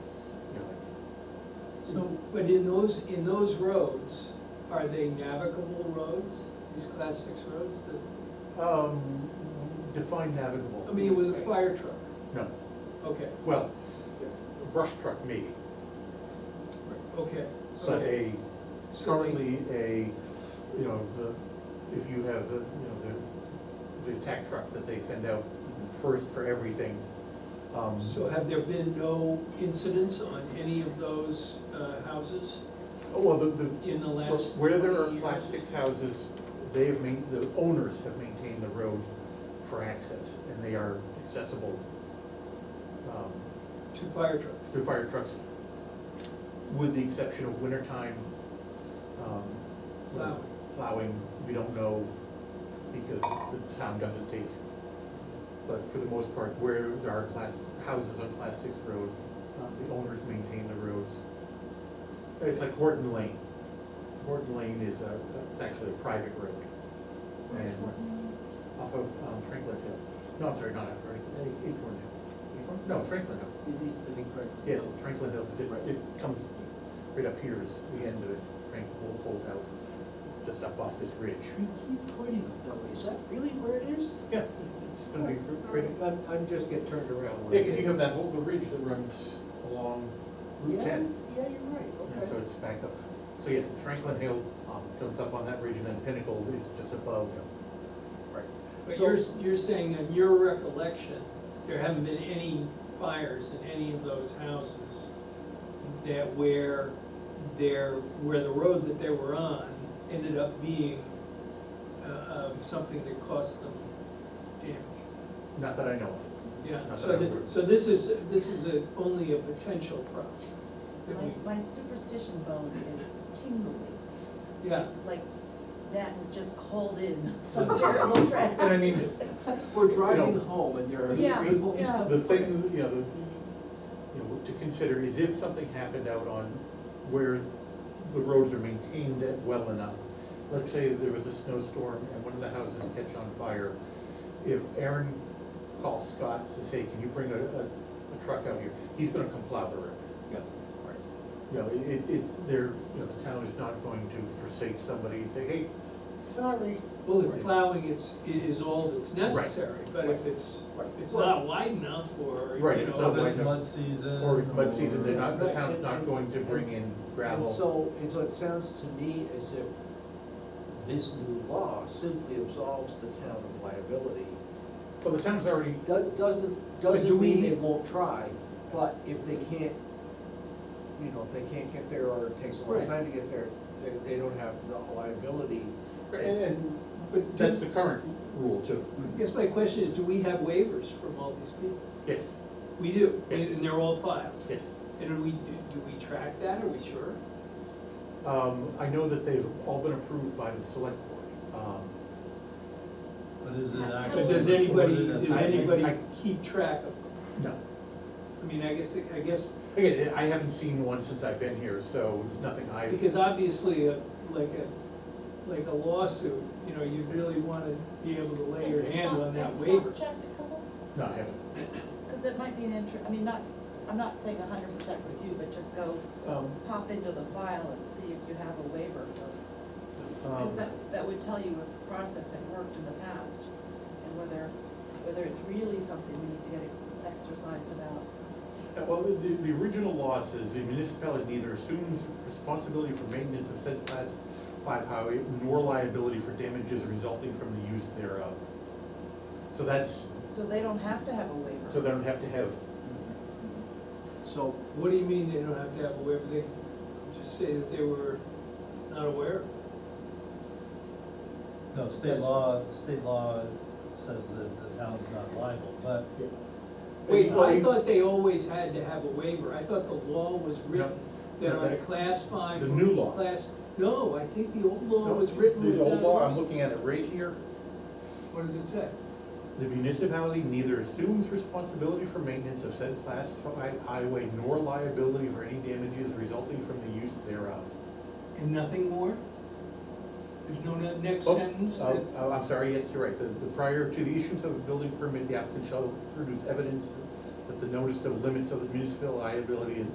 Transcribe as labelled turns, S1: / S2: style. S1: So, but in those, in those roads, are they navigable roads, these class six roads that,
S2: Um, define navigable.
S1: I mean, with a fire truck?
S2: No,
S1: Okay,
S2: well, a brush truck maybe,
S1: okay.
S2: but
S1: okay.
S2: a,
S1: So they-
S2: currently a, you know, the, if you have the, you know, the, the tack truck that they send out first for everything. um,
S1: So have there been no incidents on any of those uh, houses
S2: oh, Well, the, the,
S1: in the last
S2: where there are
S1: 20
S2: class
S1: years?
S2: six houses, they have main, the owners have maintained the road for access, and they are accessible, um,
S1: Two fire trucks?
S2: through fire trucks, with the exception of wintertime. um,
S1: Plowing.
S2: Plowing, we don't know, because the town doesn't take. But for the most part, where there are class, houses on class six roads, um, the owners maintain the roads. It's like Horton Lane. Horton Lane is a, it's actually a private road. And Off of um, Franklin Hill. No, I'm sorry, not off Franklin, eh, Acorn Hill. Acorn? No, Franklin Hill.
S3: It needs to be corrected.
S2: Yes, it's Franklin Hill, 'cause it, it comes right up here is the end of it, Frank Wolf's old house. It's just up off this ridge.
S3: We keep pointing it that way, is that really where it is?
S2: Yeah, it's gonna be right, up-
S3: I'm, I'm just get turned around. when I
S2: yeah, cause
S3: get-
S2: you have that whole, the ridge that runs along Route
S3: Yeah,
S2: ten.
S3: yeah, you're right,
S2: And so
S3: okay.
S2: it's back up. So yes, it's Franklin Hill, um, comes up on that ridge and then Pinnacle is just above. Right.
S1: But
S3: So-
S1: you're, you're saying on your recollection, there haven't been any fires in any of those houses that where there, where the road that they were on ended up being, uh, um, something that cost them damage?
S2: Not that I know of.
S1: Yeah,
S2: Not
S1: so
S2: that I'm
S1: that-
S2: aware of.
S1: so this is, this is a, only a potential problem. that we-
S4: My my superstition bone is tingling,
S1: Yeah,
S4: like that has just called in some terrible
S2: And I
S4: tragedy.
S2: mean,
S3: We're
S2: You
S3: driving
S2: know,
S3: home and there are three
S4: Yeah,
S3: homes
S4: yeah.
S3: up
S2: The
S3: there.
S2: thing, you know, the, you know, to consider is if something happened out on where the roads are maintained at well enough. Let's say there was a snowstorm and one of the houses catch on fire. If Aaron calls Scott, says, hey, can you bring a, a, a truck out here? He's gonna come plow the road.
S3: Yeah.
S2: Right. You know, it- it, it's, there, you know, the town is not going to forsake somebody and say, hey, sorry.
S1: well, if
S2: Right.
S1: plowing it's, it is all that's necessary, but if it's,
S2: Right.
S1: it's not wide enough or, you know.
S2: Right, it's not
S1: this-
S2: wide
S5: It's
S2: enough.
S5: mud season.
S2: Or it's mud season, they're
S5: or-
S2: not, the
S3: Right,
S2: town's
S3: and-
S2: not
S3: and-
S2: going to bring in gravel.
S3: And so, and so it sounds to me as if this new law simply absolves the town of liability.
S2: Well, the town's already,
S3: Do- Doesn't,
S1: do
S3: doesn't
S1: we-
S3: mean they won't try, but if they can't, you know, if they can't get there or it takes a long
S1: Right.
S3: time to get there, they, they don't have the liability.
S2: and, and
S1: But
S2: that's
S1: do,
S2: the current rule too.
S1: I guess my question is, do we have waivers from all these people?
S2: Yes,
S1: We do, and
S2: Yes.
S1: and they're all filed.
S2: yes.
S1: And do we, do we track that, are we sure?
S2: Um, I know that they've all been approved by the select board. Um,
S5: But is it
S4: But
S5: actually?
S1: But does anybody,
S5: recorded as
S1: does
S5: a-
S2: I-
S1: anybody
S2: I-
S1: keep track of,
S2: No,
S1: them? I mean, I guess, I guess,
S2: again, I haven't seen one since I've been here, so it's nothing I,
S1: because obviously, a- like a, like a lawsuit, you know, you'd really wanna be able to lay your hand on that waiver.
S4: Have you stopped- have you stopped checked a couple?
S2: no, I haven't.
S4: Because it might be an inter, I mean, not, I'm not saying hundred percent review, but just go
S2: Um,
S4: pop into the file and see if you have a waiver for. Because
S2: um,
S4: that, that would tell you if the process had worked in the past and whether, whether it's really something we need to get ex- exercised about.
S2: Yeah, Uh, Well, the, the original law says the municipality neither assumes responsibility for maintenance of said class five highway nor liability for damages resulting from the use thereof. So that's,
S4: So they don't have to have a waiver.
S2: so they don't have to have,
S1: Mm-hmm,
S3: So
S1: What do you mean they don't have to have a waiver, they just say that they were not aware?
S5: No, state law, state law says that the town's not liable, but
S1: Wait,
S5: Well,
S1: I
S2: you-
S1: thought they always had to have a waiver, I thought the law was written that
S2: No,
S1: on a
S2: that-
S1: class five.
S2: the new law.
S1: Class, no, I think the old law was written.
S2: The old
S1: without a
S2: law, I'm
S1: waiver.
S2: looking at it right here,
S1: What does it say?
S2: the municipality neither assumes responsibility for maintenance of said class five highway nor liability for any damages resulting from the use thereof.
S1: And nothing more? There's no ne- next
S2: Oh,
S1: sentence
S2: oh,
S1: that,
S2: Oh, I'm sorry, yes, you're right, the, the prior to the issuance of a building permit, the applicant shall produce evidence that the notice of limits of the municipal liability and